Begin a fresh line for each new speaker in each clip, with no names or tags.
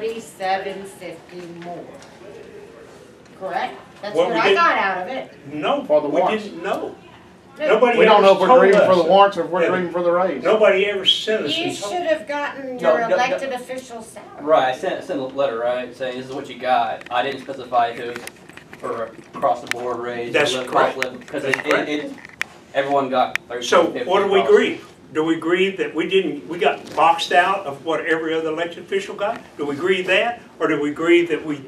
thirty-seven fifty more. Correct? That's
Well,
what
we
I
didn't-
got out of it.
No,
For the
we
warrants.
didn't know.
No,
Nobody
We don't know if
ever
we're
told
grieving for the
us.
warrants or if we're
Yeah.
grieving for the raise.
Nobody ever sent us.
You
and told-
should have gotten
No,
your
no, no.
elected official salary.
Right, I sent, sent a letter, right, saying this is what you got. I didn't specify if it was for across the board raise.
That's correct.
Because it,
That's correct.
it, it, everyone got thirteen fifty.
So what do we
across.
grieve? Do we grieve that we didn't, we got boxed out of what every other elected official got? Do we grieve that? Or do we grieve that we,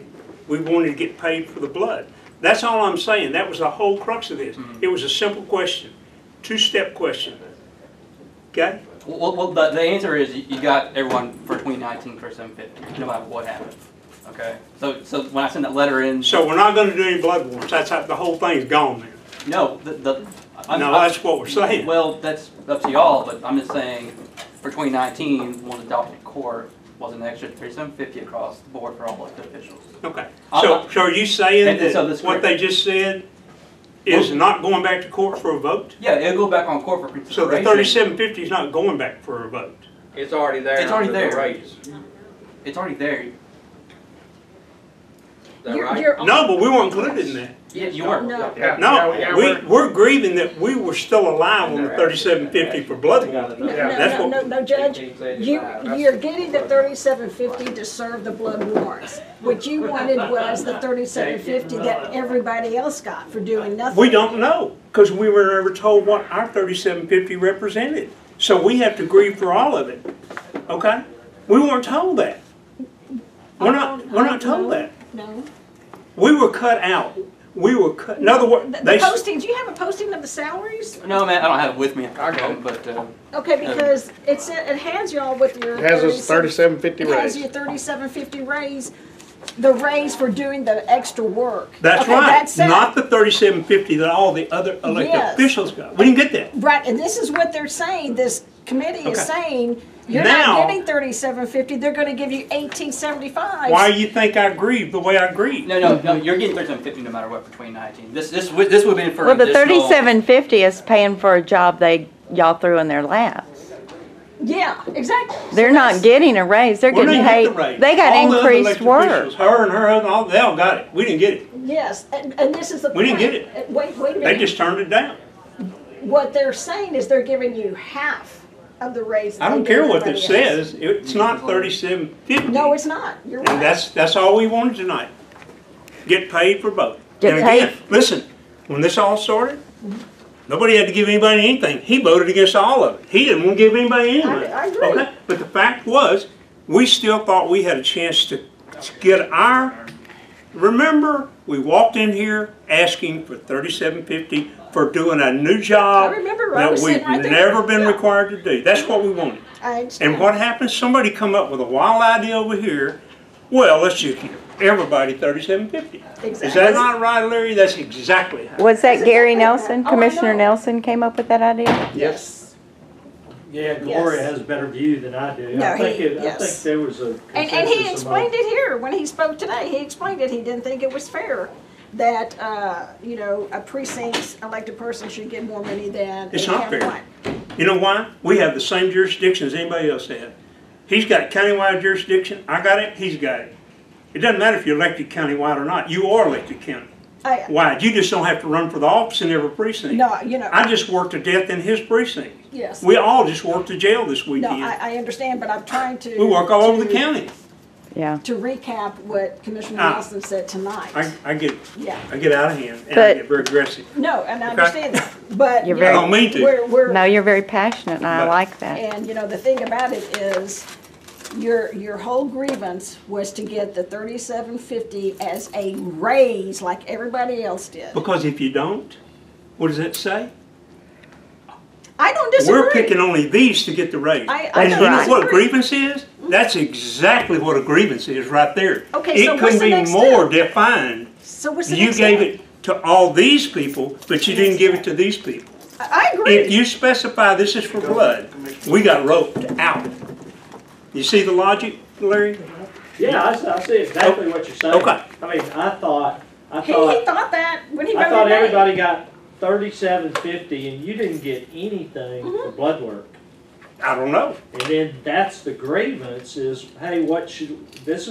we wanted to get paid for the blood? That's all I'm saying. That was the whole crux of this.
Mm-hmm.
It was a simple question, two-step question. Okay?
Well, well, the, the answer is you you got everyone for 2019 for 750, no matter what happened. Okay, so so when I send that letter in,
So we're not gonna do any blood warrants. That's how, the whole thing's gone now.
no, the, the I'm,
No,
I'm-
that's what we're saying.
Well, that's up to y'all, but I'm just saying for 2019, one adopted court was an extra 3750 across the board for all elected officials.
Okay.
I'm
So,
not-
so are you
And-
saying
and so
that
this-
what they just said is
Well-
not going back to court for a vote?
Yeah, it'll go back on court for
So the
consideration.
thirty-seven fifty is not going back for a vote?
It's already there.
It's already
under
there.
the raise. Is
It's already there.
that
You're-
right?
you're
No, but we weren't included in that.
Yeah, you weren't.
No.
Yeah,
No,
yeah,
we,
we're-
we're grieving that we were still alive on the thirty-seven fifty for blood warrants.
No,
Yeah,
no,
that's
no,
what-
no, no, Judge, you,
1875, that's-
you're getting the thirty-seven fifty to serve the blood warrants. What you wanted was the thirty-seven fifty that everybody else got for doing nothing.
We don't know, because we were never told what our thirty-seven fifty represented. So we have to grieve for all of it, okay? We weren't told that. We're not, we're not told that.
No.
We were cut out. We were cut, in other
The
words,
the
they, s-
posting, do you have a posting of the salaries?
No, man, I don't have it with me.
I got it.
But uh,
Okay, because it said, it has y'all with your.
It has us
37
thirty-seven fifty
It has
raise.
your thirty-seven fifty raise, the raise for doing the extra work.
that's
Okay,
right,
That's it.
not the thirty-seven fifty that all the other elected
Yes.
officials got. We didn't get that.
Right, and this is what they're saying, this committee is
Okay.
saying, you're
Now-
not getting thirty-seven fifty, they're gonna give you eighteen seventy-five.
Why you think I grieve the way I grieve?
no, no, no, you're getting 3750 no matter what for 2019. This this would this would have been for
Well, the
additional-
thirty-seven fifty is paying for a job they, y'all threw in their laps.
Yeah, exactly. So
They're not
that's-
getting a raise, they're
Well,
getting
they get
paid,
the raise.
they got
All the other
increased
elected
work.
officials, Her and her husband, all, they all got it. We didn't get it.
Yes, and, and this is the.
We didn't
point.
get it.
Uh, Wait, wait a
They
minute,
just turned it down.
what they're saying is they're giving you half of the raise.
I don't
they give
care what it
everybody else.
says. It's not thirty-seven fifty.
No, it's not, you're
And
right.
that's, that's all we wanted tonight. Get paid for both.
Get
And again,
paid.
Listen, when this all started, nobody had to give anybody anything. He voted against all of it. He didn't want to give anybody anything.
I agree.
Okay? But the fact was, we still thought we had a chance to to get our, remember, we walked in here asking for thirty-seven fifty for doing a new job
I remember, I was sitting right there.
That we've never been required to do. That's what we wanted.
I
And
understand.
what happens, somebody come up with a wild idea over here, well, let's just give everybody thirty-seven fifty. Is
Exactly.
that not right, Larry? That's exactly how.
Was that Gary
Oh,
Nelson,
I
Commissioner
know.
Nelson came up with that idea?
Yes.
Yeah, Gloria
Yes.
has a better view than I do.
No,
I think
he-
it- I
yes.
think there was a
And, and he
consensus among-
explained it here when he spoke today. He explained it. He didn't think it was fair that, uh, you know, a precinct elected person should get more money than.
It's
a
not
town
fair.
one.
You know why? We have the same jurisdiction as anybody else has. He's got countywide jurisdiction, I got it, he's got it. It doesn't matter if you're elected countywide or not, you are elected countywide.
I-
You just don't have to run for the office in every precinct.
No, you know,
I just worked to death in his precinct.
yes.
We all just worked to jail this
No,
weekend.
I, I understand, but I'm trying to.
We work all over the
to-
county.
Yeah,
To recap what Commissioner
Ah.
Nelson said
I,
tonight.
I get,
Yeah.
I get out of hand and I
But-
get very aggressive.
No, and I
Okay.
understand that, but.
You're
you know,
very- I
don't mean to.
We're, we're.
no, you're very passionate and I
But-
like that.
And, you know, the thing about it is, your, your whole grievance was to get the thirty-seven fifty as a raise like everybody else did.
Because if you don't, what does that say?
I don't
We're
disagree.
picking only these to get the raise.
I- I
And
don't
you know what a
disagree.
grievance is? That's exactly what a grievance is right there.
Okay, so what's the next
It couldn't be more defined.
So what's the
You
next
gave
step?
it to all these people, but you didn't give it to these people.
I I
If
agree.
you specify this is for blood, we got roped out. You see the logic, Larry?
Yeah, I, s- I see exactly what you're saying.
Okay.
I mean, I thought, I
He, he
thought,
thought that when he wrote
I thought
it down. Mm-hmm.
everybody got thirty-seven fifty and you didn't get anything for blood work.
I don't know.
And then that's the grievance is, hey, what should, this is